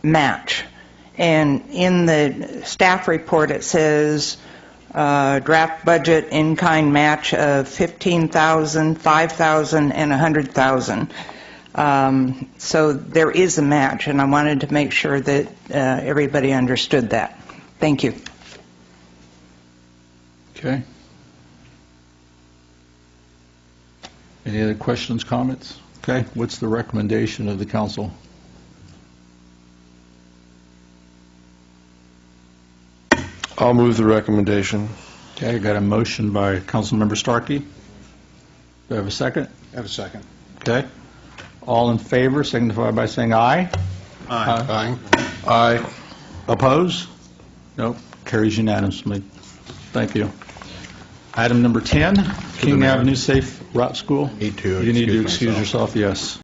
match. And in the staff report, it says uh, draft budget in-kind match of 15,000, 5,000, and 100,000. Um, So there is a match, and I wanted to make sure that uh, everybody understood that. Thank you. Okay. Any other questions, comments? Okay, what's the recommendation of the council? I'll move the recommendation. Okay, I got a motion by Councilmember Starkey. Do I have a second? Have a second. Okay. All in favor signify by saying aye. Aye. Aye. Oppose? Nope, carries unanimously. Thank you. Item number 10, King mayor. Avenue Safe Route School. Need to You need to excuse excuse yourself, myself. yes.